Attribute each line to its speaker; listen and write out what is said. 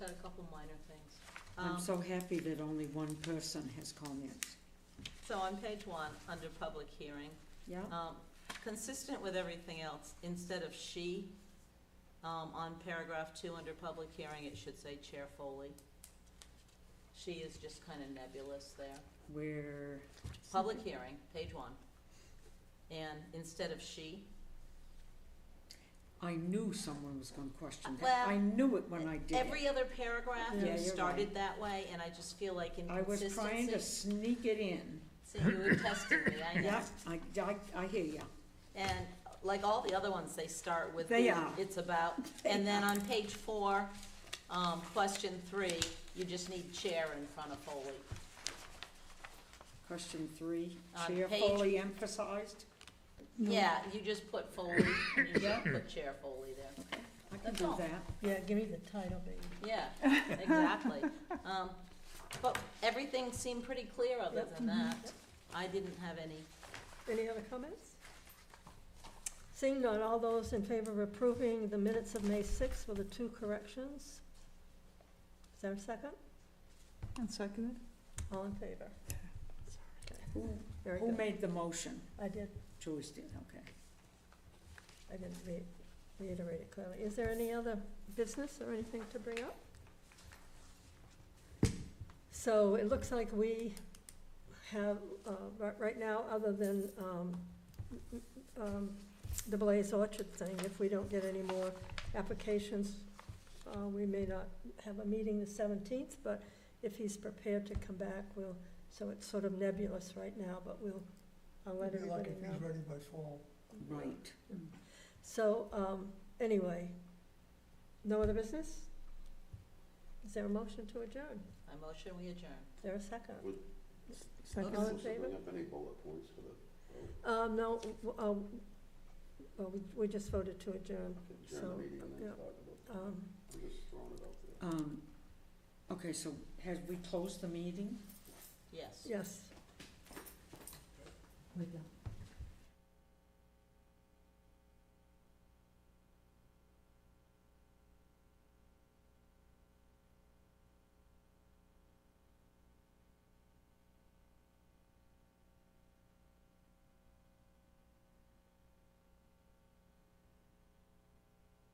Speaker 1: minor things.
Speaker 2: I'm
Speaker 1: Um,
Speaker 2: so happy that only one person has comments.
Speaker 1: So on page one, under public hearing,
Speaker 2: Yeah,
Speaker 1: um, consistent with everything else, instead of she, um, on paragraph two, under public hearing, it should say Chair Foley. She is just kind of nebulous there.
Speaker 2: where,
Speaker 1: Public
Speaker 2: Mm-hmm.
Speaker 1: hearing, page one. And instead of she,
Speaker 2: I knew someone was gonna question that.
Speaker 1: Well,
Speaker 2: I knew it when I did it.
Speaker 1: every other paragraph,
Speaker 2: Yeah,
Speaker 1: you
Speaker 2: you're
Speaker 1: started
Speaker 2: right.
Speaker 1: that way, and I just feel like
Speaker 2: I
Speaker 1: inconsistency.
Speaker 2: was trying to sneak it in.
Speaker 1: See, you were testing me, I know.
Speaker 2: Yeah, I, I, I hear ya.
Speaker 1: And like all the other ones, they start with.
Speaker 2: They
Speaker 1: who
Speaker 2: are.
Speaker 1: It's about, and then on page four, um, question three, you just need chair in front of Foley.
Speaker 2: Question three,
Speaker 1: On
Speaker 2: chair
Speaker 1: page-
Speaker 2: fully emphasized.
Speaker 1: Yeah, you just put Foley, and you
Speaker 2: Yeah.
Speaker 1: should put chair Foley there.
Speaker 2: I can
Speaker 1: That's
Speaker 2: do
Speaker 1: all.
Speaker 2: that.
Speaker 3: Yeah, give me the title, baby.
Speaker 1: Yeah, exactly. Um, but everything seemed pretty clear other than that. I didn't have any,
Speaker 3: Any other comments? Seeing none, all those in favor of approving the minutes of May 6th with the two corrections? Is there a second?
Speaker 4: And seconded?
Speaker 3: All in favor?
Speaker 2: Who,
Speaker 3: Very
Speaker 2: who
Speaker 3: good.
Speaker 2: made the motion?
Speaker 3: I did,
Speaker 2: Joyce did, okay.
Speaker 3: I didn't re- reiterate it clearly. Is there any other business or anything to bring up? So it looks like we have, uh, ri- right now, other than um, um, the Blaze Orchard thing, if we don't get any more applications, uh, we may not have a meeting the 17th, but if he's prepared to come back, we'll, so it's sort of nebulous right now, but we'll, I'll let
Speaker 5: It'd be like
Speaker 3: everybody
Speaker 5: if
Speaker 3: know.
Speaker 5: he's ready by fall.
Speaker 2: Right.
Speaker 3: So, um, anyway, no other business? Is there a motion to adjourn?
Speaker 1: I motion we adjourn.
Speaker 3: Is there a second? All in
Speaker 6: Supposed to bring
Speaker 3: favor?
Speaker 6: up any bullet points for the
Speaker 3: Um, no, w- um, well, we, we just voted to adjourn. So,
Speaker 6: adjourned meeting and then
Speaker 3: yeah.
Speaker 6: talk about,
Speaker 3: Um,
Speaker 6: I'm just throwing it out there.
Speaker 2: Um, okay, so have we closed the meeting?
Speaker 1: Yes.
Speaker 3: yes.
Speaker 4: We don't.